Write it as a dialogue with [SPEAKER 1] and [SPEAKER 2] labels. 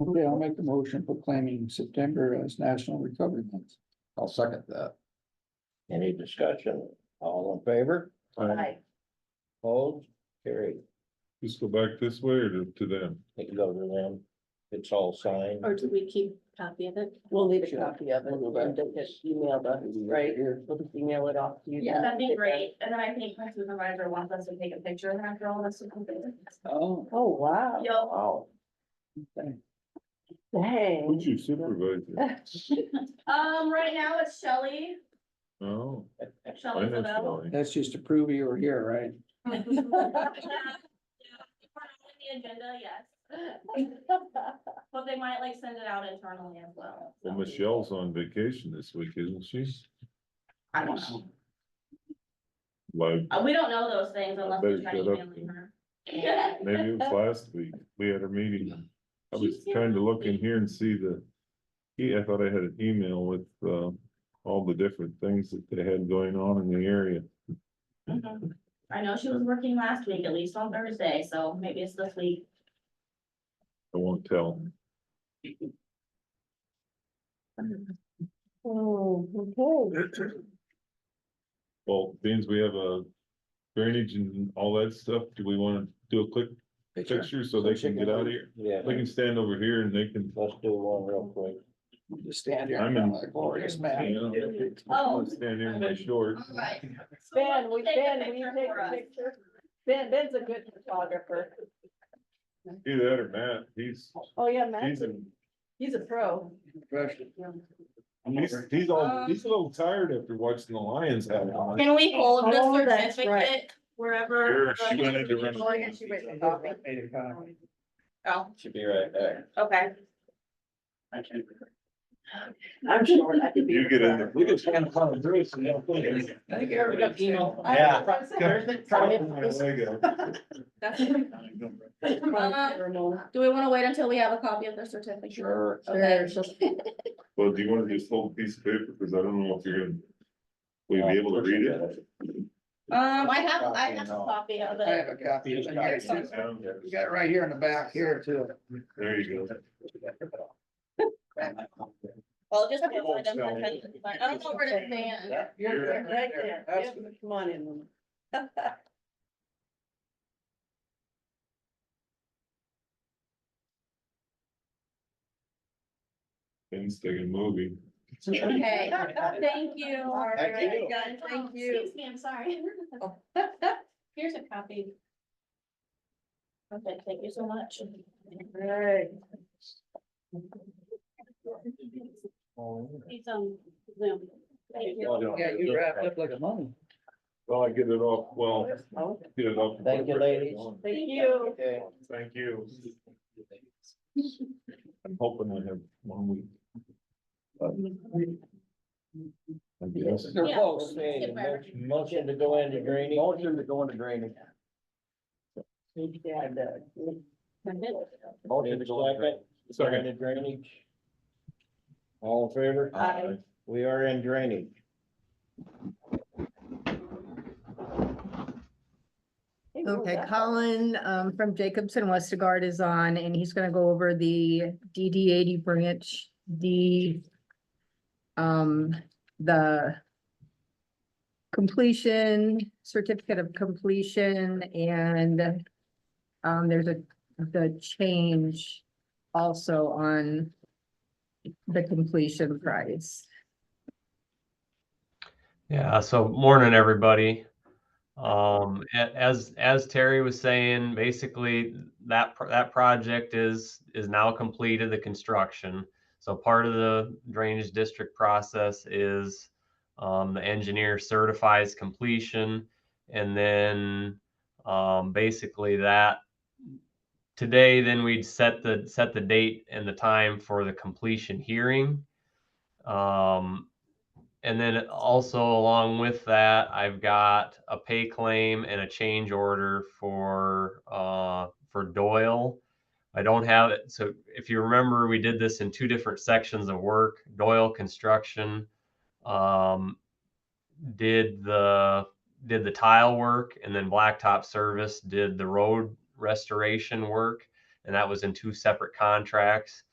[SPEAKER 1] Okay, I'll make the motion proclaiming September as National Recovery Month.
[SPEAKER 2] I'll second that. Any discussion? All in favor?
[SPEAKER 3] Aye.
[SPEAKER 2] Opposed? Carried.
[SPEAKER 4] Just go back this way or to to them?
[SPEAKER 2] They can go to them. It's all signed.
[SPEAKER 3] Or do we keep copy of it?
[SPEAKER 5] We'll need a
[SPEAKER 1] Sure.
[SPEAKER 5] copy of it,
[SPEAKER 1] We'll go back.
[SPEAKER 5] and then just email the, right, we'll just email it off to you.
[SPEAKER 3] Yeah, that'd be great. And then I think my supervisor wants us to take a picture of that girl. That's something.
[SPEAKER 1] Oh,
[SPEAKER 5] Oh, wow,
[SPEAKER 3] Yo,
[SPEAKER 2] Wow.
[SPEAKER 1] okay.
[SPEAKER 5] dang.
[SPEAKER 4] Who's your supervisor?
[SPEAKER 3] um, right now it's Shelley.
[SPEAKER 4] Oh, I
[SPEAKER 3] Shelley
[SPEAKER 4] know
[SPEAKER 3] Zabel.
[SPEAKER 4] Shelley.
[SPEAKER 1] that's just to prove you were here, right?
[SPEAKER 3] Yeah, yeah. If we're on The agenda, yes. But they might like send it out internally as well. so.
[SPEAKER 4] Well, Michelle's on vacation this week, isn't she?
[SPEAKER 3] I don't
[SPEAKER 5] Hmm,
[SPEAKER 3] know.
[SPEAKER 4] Like,
[SPEAKER 3] Uh, we don't know those things unless we
[SPEAKER 4] better
[SPEAKER 3] try
[SPEAKER 4] shut up
[SPEAKER 3] emailing
[SPEAKER 4] then.
[SPEAKER 3] her.
[SPEAKER 4] maybe it was last week, we had a meeting. I was trying to look in here and see the, yeah, I thought I had an email with, uh, all the different things that they had going on in the area.
[SPEAKER 3] Mhm. I know she was working last week, at least on Thursday, so maybe it's this week.
[SPEAKER 4] I won't tell.
[SPEAKER 5] Oh, okay.
[SPEAKER 4] Well, beans, we have a drainage and all that stuff, do we wanna do a quick picture so they can get out of here?
[SPEAKER 2] Yeah,
[SPEAKER 4] They can stand over here and they can.
[SPEAKER 2] let's do one real quick.
[SPEAKER 1] Just stand here.
[SPEAKER 4] I'm in-
[SPEAKER 1] like Glorious man.
[SPEAKER 4] you
[SPEAKER 3] Oh.
[SPEAKER 4] know, Stand here in my shorts.
[SPEAKER 3] Alright. So
[SPEAKER 5] Ben,
[SPEAKER 3] we'll
[SPEAKER 5] we,
[SPEAKER 3] take a
[SPEAKER 5] Ben, will you
[SPEAKER 3] picture
[SPEAKER 5] take
[SPEAKER 3] for
[SPEAKER 5] a
[SPEAKER 3] us.
[SPEAKER 5] picture? Ben, Ben's a good photographer.
[SPEAKER 4] Do that or Matt, he's,
[SPEAKER 5] Oh, yeah, Matt,
[SPEAKER 4] he's, in-
[SPEAKER 5] he's a pro.
[SPEAKER 1] Impression.
[SPEAKER 4] he's, he's all, he's a little tired after watching the Lions have it on.
[SPEAKER 3] Can we hold the
[SPEAKER 5] Oh, that's right.
[SPEAKER 3] certificate wherever?
[SPEAKER 4] Sure, she went into run-
[SPEAKER 5] Oh, yeah, she went and got me.
[SPEAKER 1] Made a comment.
[SPEAKER 3] Oh,
[SPEAKER 2] Should be right back.
[SPEAKER 3] okay.
[SPEAKER 5] I'm sure I could be.
[SPEAKER 4] You get in there.
[SPEAKER 2] We just kind of found Bruce and they'll put it.
[SPEAKER 1] I think everybody's.
[SPEAKER 2] Yeah.
[SPEAKER 3] That's- Do we wanna wait until we have a copy of the certificate?
[SPEAKER 2] Sure.
[SPEAKER 3] Okay. Um,
[SPEAKER 4] Well, do you wanna just hold a piece of paper, cause I don't know if you're gonna, will you be able to read it?
[SPEAKER 3] Um, I have, I have a copy of
[SPEAKER 1] I
[SPEAKER 3] it.
[SPEAKER 1] have a copy. of it here, too.
[SPEAKER 4] Down there.
[SPEAKER 1] We got it right here in the back here too.
[SPEAKER 4] There you go.
[SPEAKER 3] Well, just. give one of them for Ken. I don't know where to stand.
[SPEAKER 1] You're
[SPEAKER 5] Right there,
[SPEAKER 1] That's
[SPEAKER 5] Yep, come on in.
[SPEAKER 4] Instant movie.
[SPEAKER 3] Okay, thank you.
[SPEAKER 5] All right,
[SPEAKER 2] Thank you.
[SPEAKER 5] guys,
[SPEAKER 3] Oh,
[SPEAKER 5] Thank you. Oh.
[SPEAKER 3] Excuse me, I'm sorry. Here's a copy. Okay, thank you so much.
[SPEAKER 5] Right.
[SPEAKER 3] It's on Zoom. Thank you.
[SPEAKER 1] Yeah, you wrapped up like a mummy.
[SPEAKER 4] Well, I get it off, well,
[SPEAKER 5] Oh,
[SPEAKER 4] get it off.
[SPEAKER 2] Thank you, ladies.
[SPEAKER 5] Thank you.
[SPEAKER 2] Okay.
[SPEAKER 4] Thank you. I'm hoping I have one week. I guess.
[SPEAKER 1] They're
[SPEAKER 3] Yeah.
[SPEAKER 1] close.
[SPEAKER 2] Okay, mo- motion to go into drainage. Motion to go into drainage.
[SPEAKER 5] Yeah, Doug.
[SPEAKER 2] Motion to go into
[SPEAKER 4] Second.
[SPEAKER 2] drainage. All in favor?
[SPEAKER 5] Aye.
[SPEAKER 2] We are in drainage.
[SPEAKER 6] Okay, Colin um from Jacobson Westergaard is on and he's gonna go over the DD eighty branch, the um, the completion, certificate of completion and um, there's a, the change also on the completion price.
[SPEAKER 7] Yeah, so morning, everybody. Um, a- as, as Terry was saying, basically that, pro- that project is, is now completed, the construction. So part of the drainage district process is, um, the engineer certifies completion. And then, um, basically that today, then we'd set the, set the date and the time for the completion hearing. Um, and then also along with that, I've got a pay claim and a change order for uh, for Doyle. I don't have it. So if you remember, we did this in two different sections of work. Doyle Construction um, did the did the tile work, and then Blacktop Service did the road restoration work. and that was in two separate contracts.